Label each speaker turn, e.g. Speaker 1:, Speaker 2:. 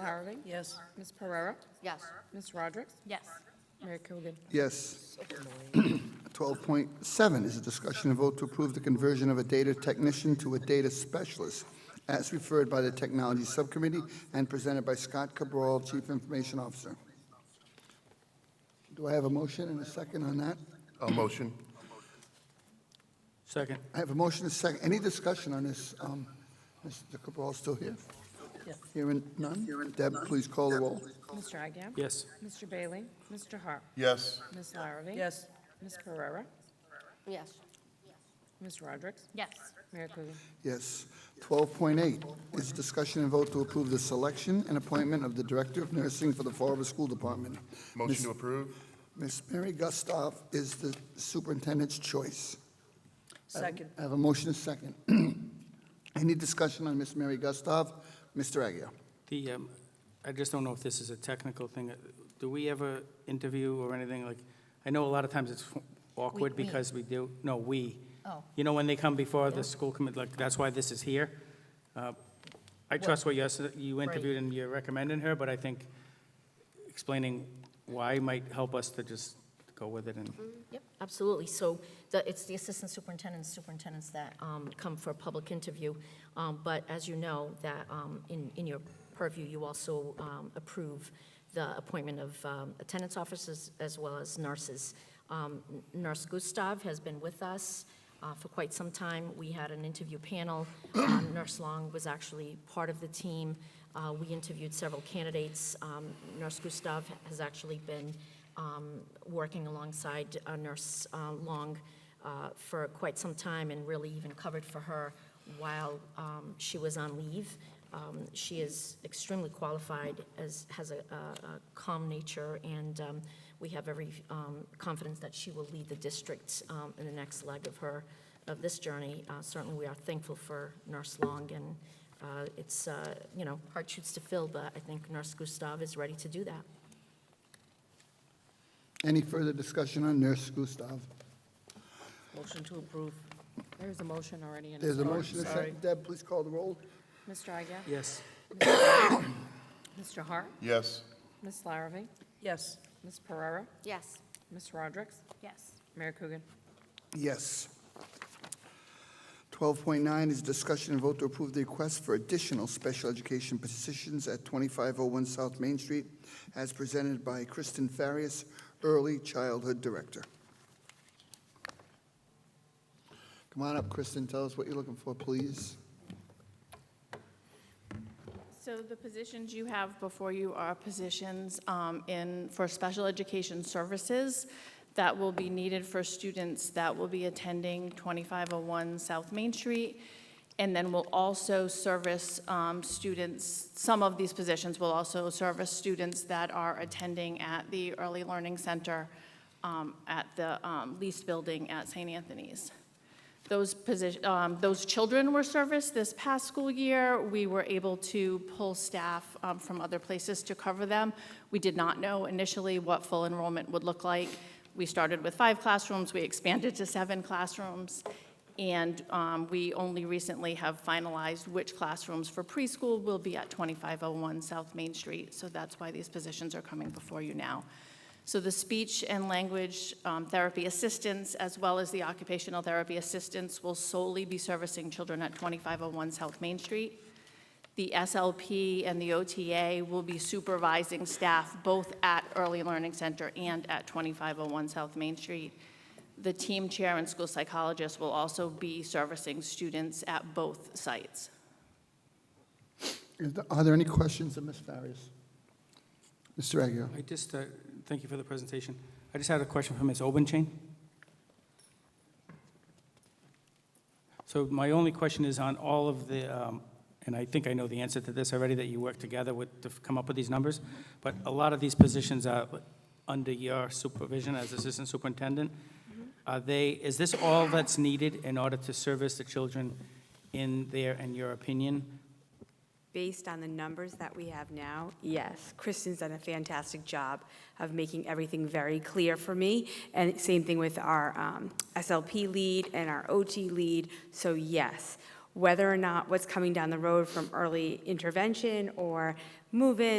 Speaker 1: Harley.
Speaker 2: Yes.
Speaker 1: Ms. Pereira.
Speaker 3: Yes.
Speaker 1: Ms. Roderick.
Speaker 3: Yes.
Speaker 1: Mayor Coogan.
Speaker 4: Yes. 12.7 is a discussion and vote to approve the conversion of a data technician to a data specialist as referred by the Technology Subcommittee and presented by Scott Cabral, Chief Information Officer. Do I have a motion and a second on that?
Speaker 5: A motion?
Speaker 6: Second.
Speaker 4: I have a motion and a second. Any discussion on this? Um, Mr. Cabral still here?
Speaker 2: Yes.
Speaker 4: Hearing none? Deb, please call the roll.
Speaker 1: Mr. Agia.
Speaker 6: Yes.
Speaker 1: Mr. Bailey. Mr. Hart.
Speaker 5: Yes.
Speaker 1: Ms. Larrabee.
Speaker 2: Yes.
Speaker 1: Ms. Pereira.
Speaker 3: Yes.
Speaker 1: Ms. Roderick.
Speaker 3: Yes.
Speaker 1: Mayor Coogan.
Speaker 4: Yes. 12.8 is discussion and vote to approve the selection and appointment of the Director of Nursing for the Fall River School Department.
Speaker 5: Motion to approve?
Speaker 4: Ms. Mary Gustav is the superintendent's choice.
Speaker 2: Second.
Speaker 4: I have a motion and second. Any discussion on Ms. Mary Gustav? Mr. Agia?
Speaker 6: The, um, I just don't know if this is a technical thing. Uh, Do we ever interview or anything like, I know a lot of times it's awkward
Speaker 3: We- we.
Speaker 6: because we do, no, we.
Speaker 3: Oh.
Speaker 6: You know, when they come before the school committee, like, that's why this is here. Uh, I trust what you, s- you interviewed and you're recommending her, but I think explaining why might help us to just go with it and,
Speaker 3: Mm-hmm.
Speaker 7: Yep, absolutely. So the, it's the assistant superintendents, superintendents that um, come for a public interview. Um, But as you know, that um, in, in your purview, you also um, approve the appointment of um, attendance officers as well as nurses. Um, N- Nurse Gustav has been with us uh, for quite some time. We had an interview panel. Um, Nurse Long was actually part of the team. Uh, We interviewed several candidates. Um, Nurse Gustav has actually been um, working alongside uh, Nurse uh, Long uh, for quite some time and really even covered for her while um, she was on leave. Um, She is extremely qualified, as, has a a- a calm nature, and um, we have every um, confidence that she will lead the district um, in the next leg of her, of this journey. Uh, Certainly, we are thankful for Nurse Long, and uh, it's, uh, you know, hard shoots to fill, but I think Nurse Gustav is ready to do that.
Speaker 4: Any further discussion on Nurse Gustav?
Speaker 2: Motion to approve.
Speaker 1: There's a motion already in.
Speaker 4: There's a motion and second. Deb, please call the roll.
Speaker 1: Mr. Agia.
Speaker 6: yes.
Speaker 1: Mr. Hart.
Speaker 5: Yes.
Speaker 1: Ms. Larrabee.
Speaker 2: Yes.
Speaker 1: Ms. Pereira.
Speaker 3: Yes.
Speaker 1: Ms. Roderick.
Speaker 3: Yes.
Speaker 1: Mayor Coogan.
Speaker 4: Yes. 12.9 is discussion and vote to approve the request for additional special education positions at 2501 South Main Street, as presented by Kristen Farias, Early Childhood Director. Come on up, Kristen, tell us what you're looking for, please.
Speaker 8: So the positions you have before you are positions um, in, for special education services that will be needed for students that will be attending 2501 South Main Street, and then will also service um, students, some of these positions will also service students that are attending at the Early Learning Center um, at the um, lease building at St. Anthony's. Those position, um, those children were serviced this past school year. We were able to pull staff, um, from other places to cover them. We did not know initially what full enrollment would look like. We started with five classrooms, we expanded to seven classrooms. And, um, we only recently have finalized which classrooms for preschool will be at 2501 South Main Street. So that's why these positions are coming before you now. So the speech and language um, therapy assistants, as well as the occupational therapy assistants, will solely be servicing children at 2501 South Main Street. The SLP and the OTA will be supervising staff both at Early Learning Center and at 2501 South Main Street. The team chair and school psychologist will also be servicing students at both sites.
Speaker 4: Is there- Are there any questions of Ms. Farias? Mr. Aguirre?
Speaker 6: I just, uh, thank you for the presentation. I just had a question for Ms. Obenchain. So my only question is on all of the, um, and I think I know the answer to this already, that you worked together with, to come up with these numbers, but a lot of these positions are under your supervision as assistant superintendent. Are they, is this all that's needed in order to service the children in there, in your opinion?
Speaker 9: Based on the numbers that we have now, yes, Kristen's done a fantastic job of making everything very clear for me. And same thing with our um, SLP lead and our OT lead. So yes, whether or not what's coming down the road from early intervention or move-in